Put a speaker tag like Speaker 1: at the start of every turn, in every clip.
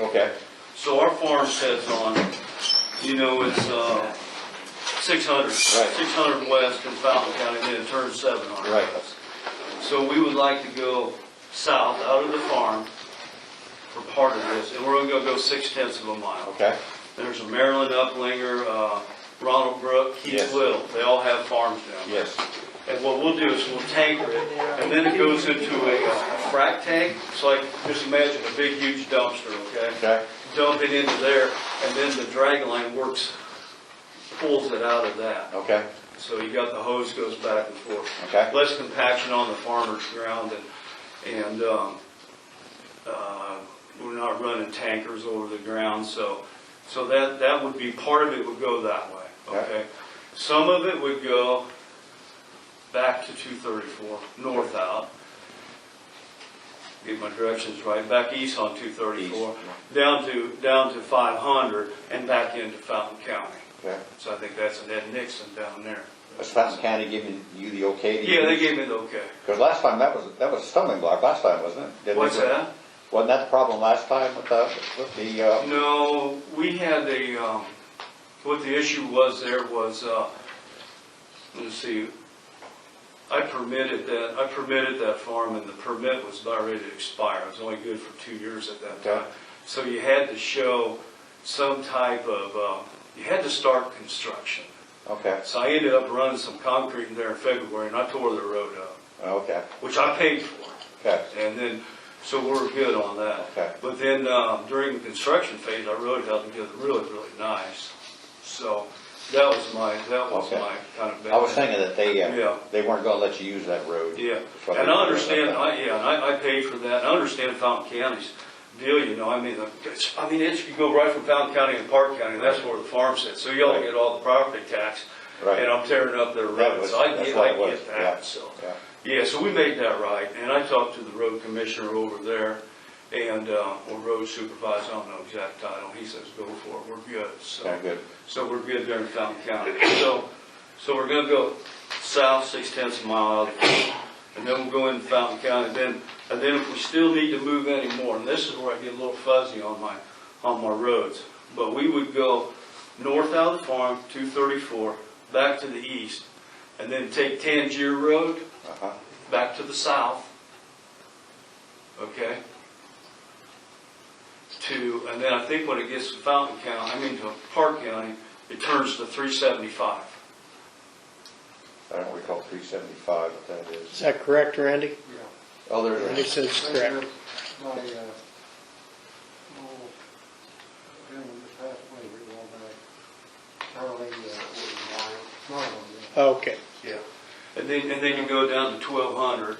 Speaker 1: Okay,
Speaker 2: So our farm says on, it, you know, it's uh, 600, 600 west in Fountain County, then it turns 700.
Speaker 1: right,
Speaker 2: So we would like to go south out of the farm for part of this, and we're gonna go six tenths of a mile.
Speaker 1: okay,
Speaker 2: There's a Maryland Uplinger, uh, Ronald Brook, Keith
Speaker 1: Yes.
Speaker 2: Will, they all have farms down there.
Speaker 1: yes,
Speaker 2: And what we'll do is we'll tanker it, and then it goes into a uh, a frac tank. It's like, just imagine a big huge dumpster, okay?
Speaker 1: okay,
Speaker 2: dump it into there, and then the drag line works, pulls it out of that.
Speaker 1: okay,
Speaker 2: So you got the hose goes back and forth.
Speaker 1: okay,
Speaker 2: Less compaction on the farmer's ground and, and, um, uh, we're not running tankers over the ground, so, so that, that would be, part of it would go that way,
Speaker 1: Okay.
Speaker 2: okay? Some of it would go back to two thirty-four, north out. Get my directions right, back east on two thirty-four, down to, down to five hundred and back into Fountain County.
Speaker 1: okay.
Speaker 2: So I think that's Ned Nixon down there.
Speaker 1: Is Fountain County giving you the okay? to
Speaker 2: Yeah, they
Speaker 1: use?
Speaker 2: gave me the okay.
Speaker 1: Because last time, that was, that was a stumbling block last time, wasn't it? Didn't
Speaker 2: What's
Speaker 1: it?
Speaker 2: that?
Speaker 1: Wasn't that the problem last time with the, with the, uh,
Speaker 2: No, we had a, um, what the issue was there was, uh, let's see, I permitted that, I permitted that farm and the permit was about ready to expire. It was only good for two years at that time.
Speaker 1: Okay.
Speaker 2: So you had to show some type of, uh, you had to start construction.
Speaker 1: okay,
Speaker 2: So I ended up running some concrete in there in February and I tore the road up,
Speaker 1: okay,
Speaker 2: which I paid for.
Speaker 1: okay,
Speaker 2: And then, so we're good on that.
Speaker 1: Okay.
Speaker 2: But then, um, during the construction phase, our road held together really, really nice. So that was my, that was
Speaker 1: Okay.
Speaker 2: my kind of.
Speaker 1: I was thinking that they,
Speaker 2: Yeah.
Speaker 1: uh, they weren't gonna let you use that road.
Speaker 2: Yeah,
Speaker 1: That's what
Speaker 2: and I
Speaker 1: they-
Speaker 2: understand, I, yeah, and I, I paid for that, and I understand Fountain County's deal, you know, I mean, it's, I mean, it's, you go right from Fountain County and Park County, and that's where the farm sits, so y'all get all the property tax.
Speaker 1: Right.
Speaker 2: And I'm tearing up their
Speaker 1: That
Speaker 2: roads,
Speaker 1: was-
Speaker 2: I
Speaker 1: that's
Speaker 2: get,
Speaker 1: what
Speaker 2: I
Speaker 1: it was,
Speaker 2: get
Speaker 1: yeah,
Speaker 2: that, so.
Speaker 1: yeah.
Speaker 2: Yeah, so we made that right, and I talked to the road commissioner over there, and, uh, or road supervisor, I don't know exact title, he says, go for it, we're good, so.
Speaker 1: Okay, good.
Speaker 2: So we're good there in Fountain County. So, so we're gonna go south six tenths of a mile out of here, and then we'll go into Fountain County, then, and then if we still need to move any more, and this is where I get a little fuzzy on my, on my roads. But we would go north out of the farm, two thirty-four, back to the east, and then take Tangier Road
Speaker 1: Uh-huh,
Speaker 2: back to the south. Okay? To, and then I think when it gets to Fountain County, I mean to Park County, it turns to three seventy-five.
Speaker 1: I don't recall three seventy-five, what that
Speaker 3: Is
Speaker 1: is.
Speaker 3: that correct, Randy?
Speaker 1: Oh,
Speaker 3: Randy
Speaker 1: there's,
Speaker 3: says it's correct.
Speaker 4: My, uh, oh, gentleman that passed away a little while back, Charlie, uh, Marlon, yeah.
Speaker 3: Okay,
Speaker 2: Yeah. And then, and then you go down to twelve hundred,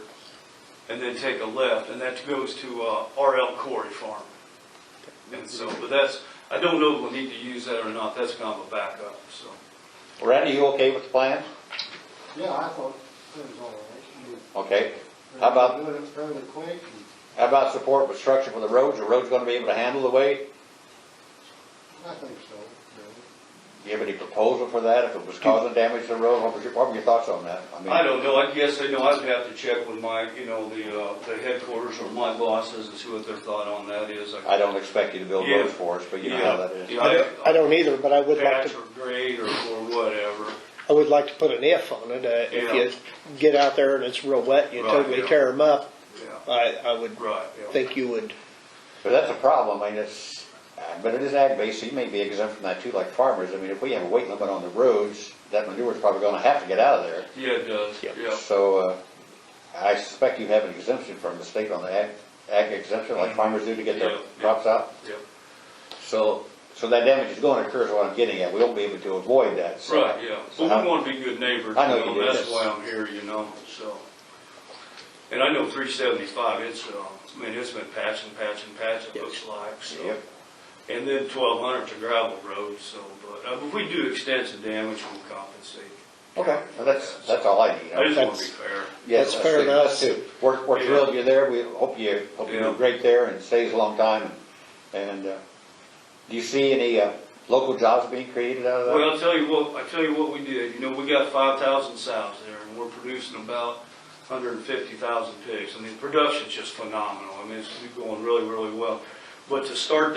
Speaker 2: and then take a left, and that goes to, uh, RL Corey Farm. And so, but that's, I don't know if we'll need to use that or not, that's kind of a backup, so.
Speaker 1: Randy, you okay with the plan?
Speaker 4: Yeah, I thought it was all right. You-
Speaker 1: Okay, How about-
Speaker 4: Doing it fairly quick, and
Speaker 1: how about support with structure for the roads, the road's gonna be able to handle the weight?
Speaker 4: I think so, really.
Speaker 1: Do you have any proposal for that, if it was causing damage to the road, what was your, what were your thoughts on that? mean-
Speaker 2: I don't know, I guess, I know, I'd have to check with my, you know, the, uh, the headquarters or my bosses and see what their thought on that is.
Speaker 1: I don't expect you to build
Speaker 2: Yeah.
Speaker 1: roads for us, but you know how that is.
Speaker 2: Yeah,
Speaker 3: I
Speaker 2: yeah,
Speaker 3: don't- I don't either, but I
Speaker 2: I-
Speaker 3: would like
Speaker 2: Patch
Speaker 3: to,
Speaker 2: or grade or, or whatever,
Speaker 3: I would like to put an if on it. Uh, If you get out there and it's real wet, you
Speaker 2: Right,
Speaker 3: totally
Speaker 2: yeah.
Speaker 3: tear them up,
Speaker 2: yeah,
Speaker 3: I, I would
Speaker 2: right, yeah.
Speaker 3: think you would,
Speaker 1: But that's a problem, I mean, it's, uh, but it is ag-based, so you may be exempt from that too, like farmers. I mean, if we have a weight limit on the roads, that manure's probably gonna have to get out of there.
Speaker 2: Yeah, it does,
Speaker 3: Yeah.
Speaker 2: yeah,
Speaker 1: So, uh, I suspect you have an exemption from the state on the ag, ag exemption, like farmers do to get
Speaker 2: Mm. Yeah,
Speaker 1: their
Speaker 2: yeah.
Speaker 1: crops out.
Speaker 2: yeah.
Speaker 1: So, so that damage is gonna occur, is what I'm getting at. We won't be able to avoid that, so.
Speaker 2: Right, yeah,
Speaker 1: so
Speaker 2: well, we
Speaker 1: how-
Speaker 2: wanna be good neighbors,
Speaker 1: I know
Speaker 2: you
Speaker 1: you
Speaker 2: know,
Speaker 1: do.
Speaker 2: that's why I'm here, you know, so. And I know three seventy-five, it's, uh, I mean, it's been patching, patching, patching, it
Speaker 3: Yep.
Speaker 2: looks like, so.
Speaker 1: Yep.
Speaker 2: And then twelve hundred's a gravel road, so, but, uh, if we do extensive damage, we'll compensate.
Speaker 1: Okay, well, that's, that's all I need.
Speaker 2: I just wanna be
Speaker 3: That's-
Speaker 2: fair.
Speaker 1: Yes,
Speaker 3: That's fair
Speaker 1: good.
Speaker 3: enough.
Speaker 1: That's good. We're, we're
Speaker 2: Yeah.
Speaker 1: thrilled you're there, we hope you, hope you
Speaker 2: Yeah.
Speaker 1: do great there and stays a long time, and, and, uh, do you see any, uh, local jobs being created out of
Speaker 2: Well,
Speaker 1: that?
Speaker 2: I'll tell you what, I'll tell you what we did, you know, we got five thousand sows there, and we're producing about hundred and fifty thousand pigs. I mean, production's just phenomenal, I mean, it's going really, really well. But to start